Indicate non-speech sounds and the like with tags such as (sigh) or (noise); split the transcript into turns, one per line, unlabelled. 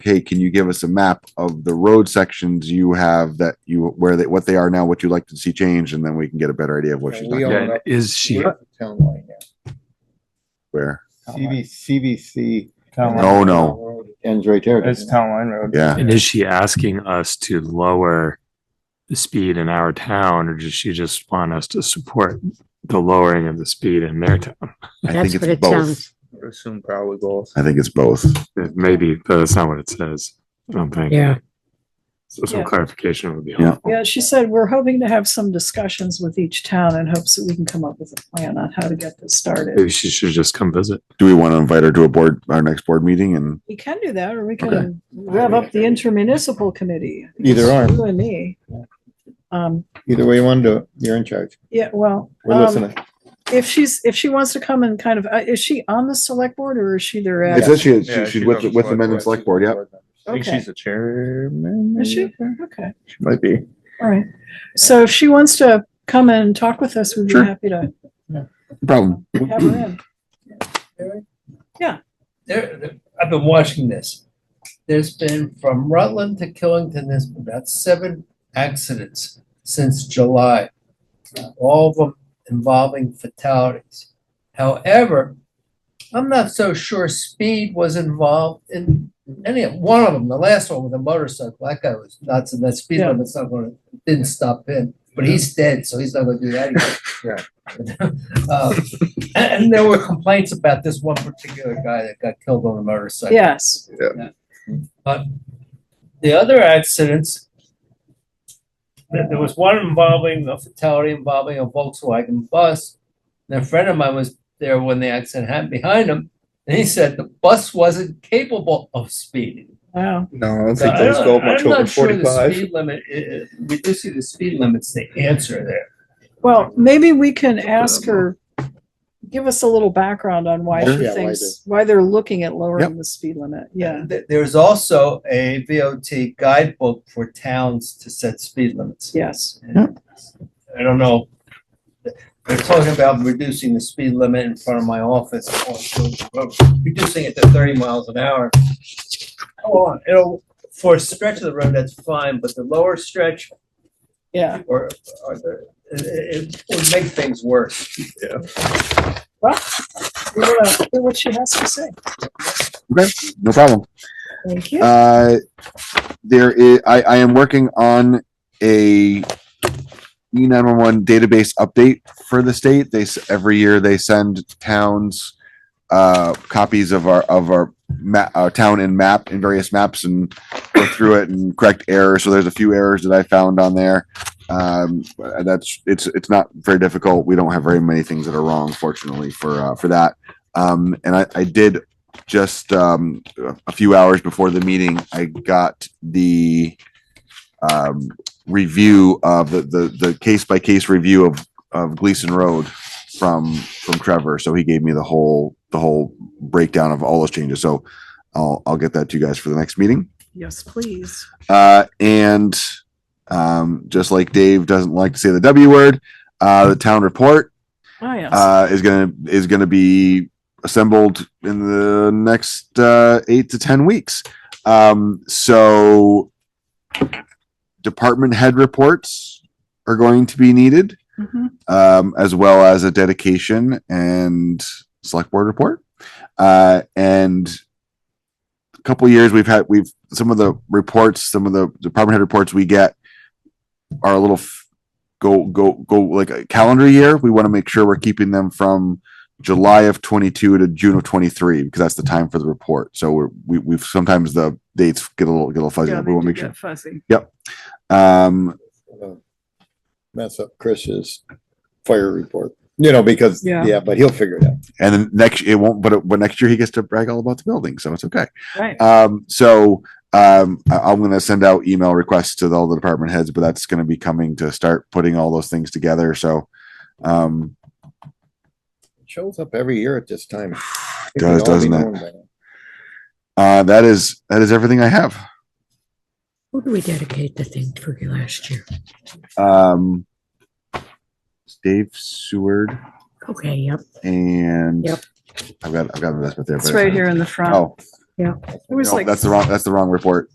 hey, can you give us a map of the road sections you have that you, where they, what they are now, what you'd like to see changed, and then we can get a better idea of what she's
Yeah, we
talking
all-
about.
Yeah,
is she?
Town line now.
Where,
CV, CVC.
Town line.
no, no,
Ends right there.
It's
doesn't it?
Town Line Road.
yeah.
And is she asking us to lower the speed in our town, or does she just want us to support the lowering of the speed in their town?
I
That's
think
what
it's
it
both.
sounds.
I would Assume probably goals.
I think it's both.
It Maybe, but that's not what it says. I don't think.
Yeah.
So some
Yeah.
clarification would be
Yeah.
helpful.
Yeah, she said, we're hoping to have some discussions with each town in hopes that we can come up with a plan on how to get this started.
Maybe she should just come visit.
Do we want to invite her to a board, our next board meeting and
We can do that, or we
Okay.
can rev up the intermunicipal committee.
Either arm.
You and me. Um,
Either way you want to do it, you're in charge.
yeah, well,
We're
um,
listening.
if she's, if she wants to come and kind of, uh, is she on the select board or is she their? ad-
it says she,
Yeah,
she- she's
she goes
with,
to
with the
select
men and
board.
select board, yep.
I think
Okay.
she's the chairman.
Is she?
maybe?
Okay,
She Might be.
all right. So if she wants to come and talk with us, we'd be
Sure.
happy to
Problem.
have her in.
there, I've been watching this. There's been from Rutland to Killington, there's been about seven accidents since July. All of them involving fatalities. However, I'm not so sure speed was involved in any of, one of them, the last one with a motorcycle, that guy was nuts and that speed
Yeah.
limit's not gonna, didn't stop him. But he's dead, so he's not gonna do that again. (laughs) Uh, and, and there were complaints about this one particular guy that got killed on a motorcycle.
Yes,
The other accidents, there, there was one involving a fatality involving a Volkswagen bus. And a friend of mine was there when the accident happened behind him, and he said the bus wasn't capable of speeding.
wow.
No, I don't
So
think those
Uh,
don't-
go much
I'm
over
not sure the
forty-five.
Speed limit, i- i- we do see the speed limit's the answer there.
Well, maybe we can ask her, give us a little background on why
Sure.
she
Yeah, why
thinks, why they're looking at lowering the speed limit. Yeah.
Th- There's also a VOT guidebook for towns to set speed limits.
Yes.
I don't know. They're talking about reducing the speed limit in front of my office on Georgia Road, reducing it to thirty miles an hour. Come on, it'll, for a stretch of the road, that's fine, but the lower stretch
Yeah.
or, or the, it, it would make things worse.
Well, we want to hear what she has to say.
No problem.
Thank you.
Uh, there is, I, I am working on a E nine one one database update for the state. They, s- every year they send towns uh, copies of our, of our ma- our town and map and various maps and go through it and correct errors. So there's a few errors that I found on there. Um, but that's, it's, it's not very difficult. We don't have very many things that are wrong, fortunately, for, uh, for that. Um, and I, I did just um, a few hours before the meeting, I got the um, review of the the the case by case review of of Gleason Road from from Trevor. So he gave me the whole the whole breakdown of all those changes. So I'll I'll get that to you guys for the next meeting.
Yes, please.
Uh, and um, just like Dave doesn't like to say the W word, uh, the town report
Oh, yes.
uh, is gonna is gonna be assembled in the next uh, eight to ten weeks. Um, so department head reports are going to be needed,
Mhm.
um, as well as a dedication and select board report. Uh, and a couple years we've had we've some of the reports, some of the department head reports we get are a little f- go go go like a calendar year. We want to make sure we're keeping them from July of 22 to June of 23 because that's the time for the report. So we're, we we've sometimes the dates get a little get a little fuzzy. but we want to make sure.
fuzzy.
Um,
Uh, Mess up Chris's fire report, you know, because,
Yeah.
yeah, but he'll figure it out.
and then next it won't, but it, but next year he gets to brag all about the building, so it's okay.
Right.
Um, so um, I, I'm going to send out email requests to all the department heads, but that's going to be coming to start putting all those things together. So um,
It Shows up every year at this time. I think
(sighs) Does,
we'd all be
doesn't it?
knowing by now.
uh, that is that is everything I have.
Who do we dedicate the thing for last year?
Um, Dave Seward
Okay, yep.
and
Yep.
I've got I've got an investment there.
It's
but-
right here in the front.
Oh,
It was
No,
like
That's the wrong, that's the wrong report.